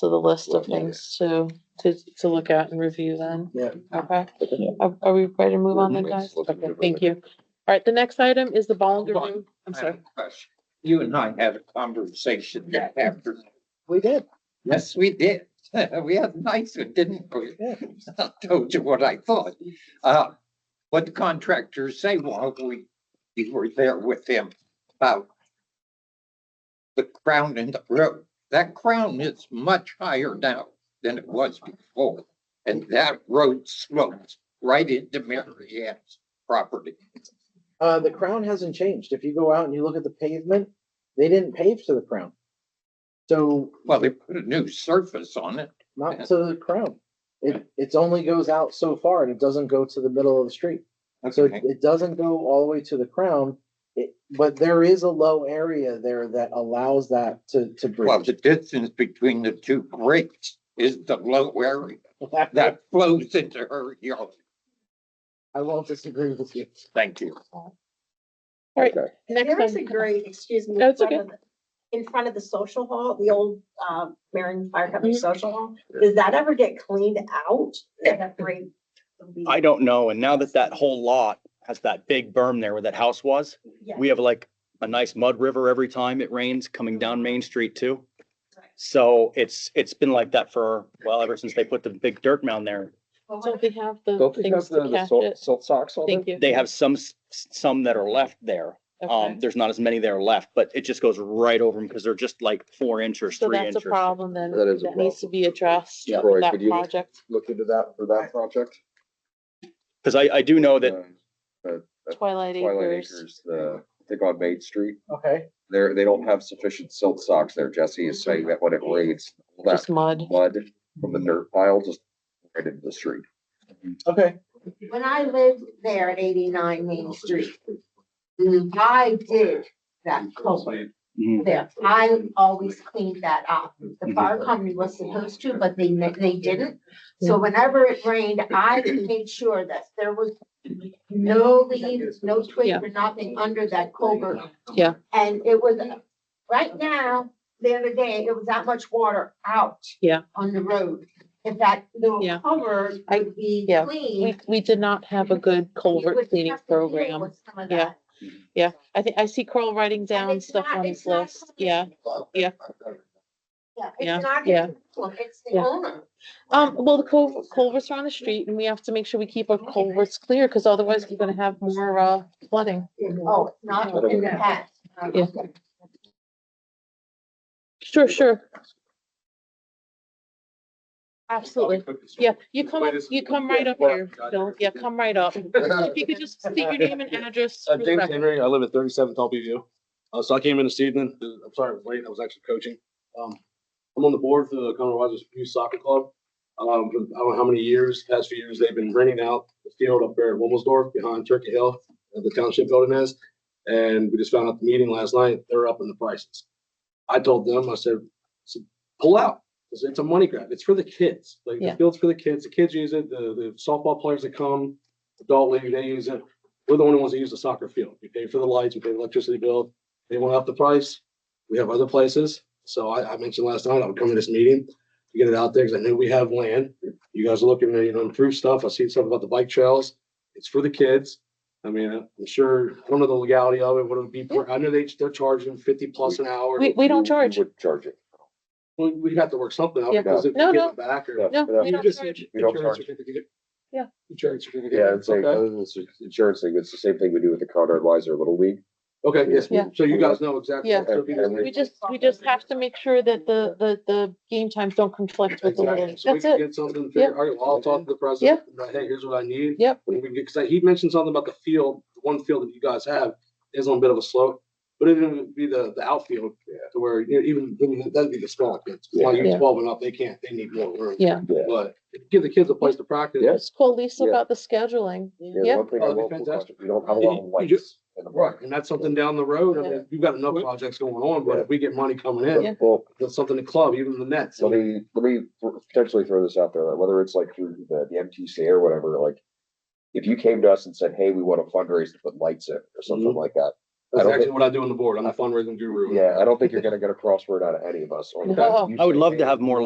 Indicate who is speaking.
Speaker 1: to the list of
Speaker 2: Yeah.
Speaker 1: things to, to, to look at and review then.
Speaker 2: Yeah.
Speaker 1: Okay,
Speaker 2: Yeah.
Speaker 1: are, are we ready to move on then,
Speaker 2: Yes,
Speaker 1: guys?
Speaker 2: let's
Speaker 1: Okay,
Speaker 2: move on.
Speaker 1: thank you. All right, the next item is the Ballinger
Speaker 3: Hold on.
Speaker 1: Room. I'm
Speaker 3: I have a
Speaker 1: sorry.
Speaker 3: question. You and I had a conversation that afternoon.
Speaker 2: We did.
Speaker 3: Yes, we did. We had a nice one, didn't we? I Told you what I thought. Uh, what the contractors say, well, we, we were there with them about the crown in the road. That crown is much higher now than it was before. And that road slopes right into Mary Ann's property.
Speaker 2: Uh, the crown hasn't changed. If you go out and you look at the pavement, they didn't pave to the crown. So
Speaker 3: Well, they put a new surface on it.
Speaker 2: not to the crown. It, it only goes out so far and it doesn't go to the middle of the street. So it,
Speaker 3: Okay.
Speaker 2: it doesn't go all the way to the crown. It, but there is a low area there that allows that to, to
Speaker 3: Well,
Speaker 2: bridge.
Speaker 3: the distance between the two grates is the low area that flows into her yard.
Speaker 2: I won't disagree with you.
Speaker 3: Thank you.
Speaker 1: All right,
Speaker 4: There
Speaker 1: next
Speaker 4: is a
Speaker 1: item.
Speaker 4: grate, excuse me. in
Speaker 1: That's
Speaker 4: front
Speaker 1: okay.
Speaker 4: of the- In front of the social hall, the old, uh, Marion Fire Company
Speaker 1: Mhm.
Speaker 4: Social Hall, does that ever get cleaned out? That that grate would be-
Speaker 5: I don't know. And now that that whole lot has that big berm there where that house was,
Speaker 4: Yeah.
Speaker 5: we have like a nice mud river every time it rains coming down Main Street too.
Speaker 4: Right.
Speaker 5: So it's, it's been like that for, well, ever since they put the big dirt mound there.
Speaker 4: Well, what
Speaker 1: Don't
Speaker 4: if-
Speaker 1: they have the
Speaker 6: Don't they
Speaker 1: things
Speaker 6: have the,
Speaker 1: to
Speaker 6: the
Speaker 1: catch
Speaker 6: salt,
Speaker 1: it?
Speaker 6: salt socks on
Speaker 1: Thank you.
Speaker 5: They have some, s- some that are left there.
Speaker 1: Okay.
Speaker 5: Um, there's not as many there left, but it just goes right over them because they're just like four inches,
Speaker 1: So
Speaker 5: three
Speaker 1: that's a
Speaker 5: inches.
Speaker 1: problem then,
Speaker 6: That is a
Speaker 1: that needs to
Speaker 6: problem.
Speaker 1: be addressed
Speaker 6: Yeah.
Speaker 1: with
Speaker 6: Roy,
Speaker 1: that
Speaker 6: could you-
Speaker 1: project
Speaker 6: Look into that for that project.
Speaker 5: Cause I, I do know Oh, that
Speaker 6: Um,
Speaker 1: Twilight
Speaker 6: Twilight
Speaker 1: Acres.
Speaker 6: Acres, the, I think on Main Street,
Speaker 2: Okay.
Speaker 6: there, they don't have sufficient silt socks there. Jesse is saying that when it rains, all that
Speaker 1: Just mud.
Speaker 6: mud from the dirt pile just right into the street.
Speaker 2: Okay.
Speaker 7: when I lived there at eighty-nine Main Street, I did that culvert
Speaker 5: Mhm.
Speaker 7: there. I always cleaned that up. The fire company was supposed to, but they, ne- they didn't. So whenever it rained, I made sure that there was no leaves, no
Speaker 1: Yeah.
Speaker 7: twigs or nothing under that culvert.
Speaker 1: Yeah.
Speaker 7: And it was, right now, the other day, it was that much water out.
Speaker 1: Yeah.
Speaker 7: On the road. If that little
Speaker 1: Yeah.
Speaker 7: cover
Speaker 1: I-
Speaker 7: would be
Speaker 1: yeah.
Speaker 7: clean.
Speaker 1: We, we did not have a good culvert cleaning program. Yeah. Yeah, I think I see Carl writing down
Speaker 7: it's
Speaker 1: stuff
Speaker 7: not-
Speaker 1: on
Speaker 7: it's
Speaker 1: his
Speaker 7: not
Speaker 1: list. Yeah. Yeah. Yeah,
Speaker 7: Yeah, it's not,
Speaker 1: yeah.
Speaker 7: his problem, it's the
Speaker 1: Yeah.
Speaker 7: owner.
Speaker 1: Um, well, the cul- culverts are on the street and we have to make sure we keep our culverts clear because otherwise we're gonna have more, uh, flooding.
Speaker 7: Oh, it's not in the past.
Speaker 1: Yeah. Sure, sure. Absolutely. Yeah, you come up, you come right up here, Bill. Yeah, come right up. If you could just state your name and address.
Speaker 8: Uh,
Speaker 1: for the
Speaker 8: David
Speaker 1: record.
Speaker 8: Henry, I live at thirty-seventh Albee View. Uh, so I came in this evening, uh, I'm sorry, I was late, I was actually coaching. Um, I'm on the board for the Conroe Rogers Youth Soccer Club. Um, for I don't know how many years, past few years, they've been renting out the field up there at Wilmsdorf behind Turkey Hill, that the township building is. And we just found out the meeting last night, they're upping the prices. I told them, I said, "S- pull out. I said, It's a money grab. It's for the kids. Like,
Speaker 1: Yeah.
Speaker 8: the field's for the kids. The kids use it, the, the softball players that come, adult league, they use it we're the only ones that use the soccer field. We pay for the lights, we pay the electricity bill. They won't up the price. We have other places. So I, I mentioned last night, I would come to this meeting to get it out there because I knew we have land. You guys are looking to, you know, improve stuff. I see stuff about the bike trails. It's for the kids. I mean, I'm sure, I don't know the legality of it, what it would be. per- I know they, they're charging fifty plus an hour.
Speaker 1: We, we don't charge.
Speaker 6: would charge it.
Speaker 8: We, we'd have to work something out
Speaker 1: Yeah.
Speaker 8: because if
Speaker 1: No,
Speaker 8: we
Speaker 1: no.
Speaker 8: give it back or.
Speaker 6: Yeah,
Speaker 1: No,
Speaker 6: yeah.
Speaker 1: we
Speaker 8: You
Speaker 1: don't
Speaker 8: just
Speaker 1: charge.
Speaker 8: need
Speaker 6: We don't
Speaker 8: insurance
Speaker 6: charge.
Speaker 8: certificate.
Speaker 1: Yeah.
Speaker 8: Insurance certificate.
Speaker 6: Yeah, it's like, uh,
Speaker 8: Okay.
Speaker 6: other than this insurance thing, it's the same thing we do with the Conrad Weiser Little League.
Speaker 8: Okay, yes,
Speaker 1: Yeah.
Speaker 8: so you guys know exactly.
Speaker 1: Yeah.
Speaker 8: what to do.
Speaker 6: And-
Speaker 1: We just, we just have to make sure that the, the, the game times don't conflict with the little,
Speaker 8: Exactly.
Speaker 1: league.
Speaker 8: So we
Speaker 1: that's
Speaker 8: can
Speaker 1: it.
Speaker 8: get something, figured- all right, well, I'll talk to the president, and I- hey, here's what I need.
Speaker 1: Yep.
Speaker 8: We can get, cause I- he mentioned something about the field, the one field that you guys have is on a bit of a slope, but it would be the, the outfield to where, you know, even, even that'd be the small kids. While
Speaker 1: Yeah.
Speaker 8: you're twelve and up, they can't, they need more room.
Speaker 1: Yeah.
Speaker 6: Yeah.
Speaker 8: But give the kids a place to practice.
Speaker 6: Yes.
Speaker 1: Just call Lisa
Speaker 6: Yeah.
Speaker 1: about the scheduling.
Speaker 6: Yeah, one thing I
Speaker 8: Oh, that'd
Speaker 6: will,
Speaker 8: be
Speaker 6: put question,
Speaker 8: fantastic.
Speaker 6: we don't have a lot of
Speaker 8: You- you
Speaker 6: lights.
Speaker 8: just-
Speaker 6: in the park.
Speaker 8: Right, and that's something down the road, I mean, you've got enough projects going on, but if we get money coming
Speaker 1: Yeah.
Speaker 8: in,
Speaker 6: Well,
Speaker 8: that's something to club, even the nets.
Speaker 6: let me, let me th- potentially throw this out there, like, whether it's like through the, the MTC or whatever, like. If you came to us and said, hey, we want to fundraise to put lights in or something
Speaker 5: Mm-hmm.
Speaker 8: Mhm.
Speaker 6: like that. I
Speaker 8: That's
Speaker 6: don't
Speaker 8: actually
Speaker 6: think,
Speaker 8: what I do on the board, I'm the fundraising guru.
Speaker 6: yeah, I don't think you're gonna get a crossword out of any of us on
Speaker 1: No.
Speaker 6: that. You
Speaker 5: I would
Speaker 6: say,
Speaker 5: love
Speaker 6: "Hey,
Speaker 5: to have more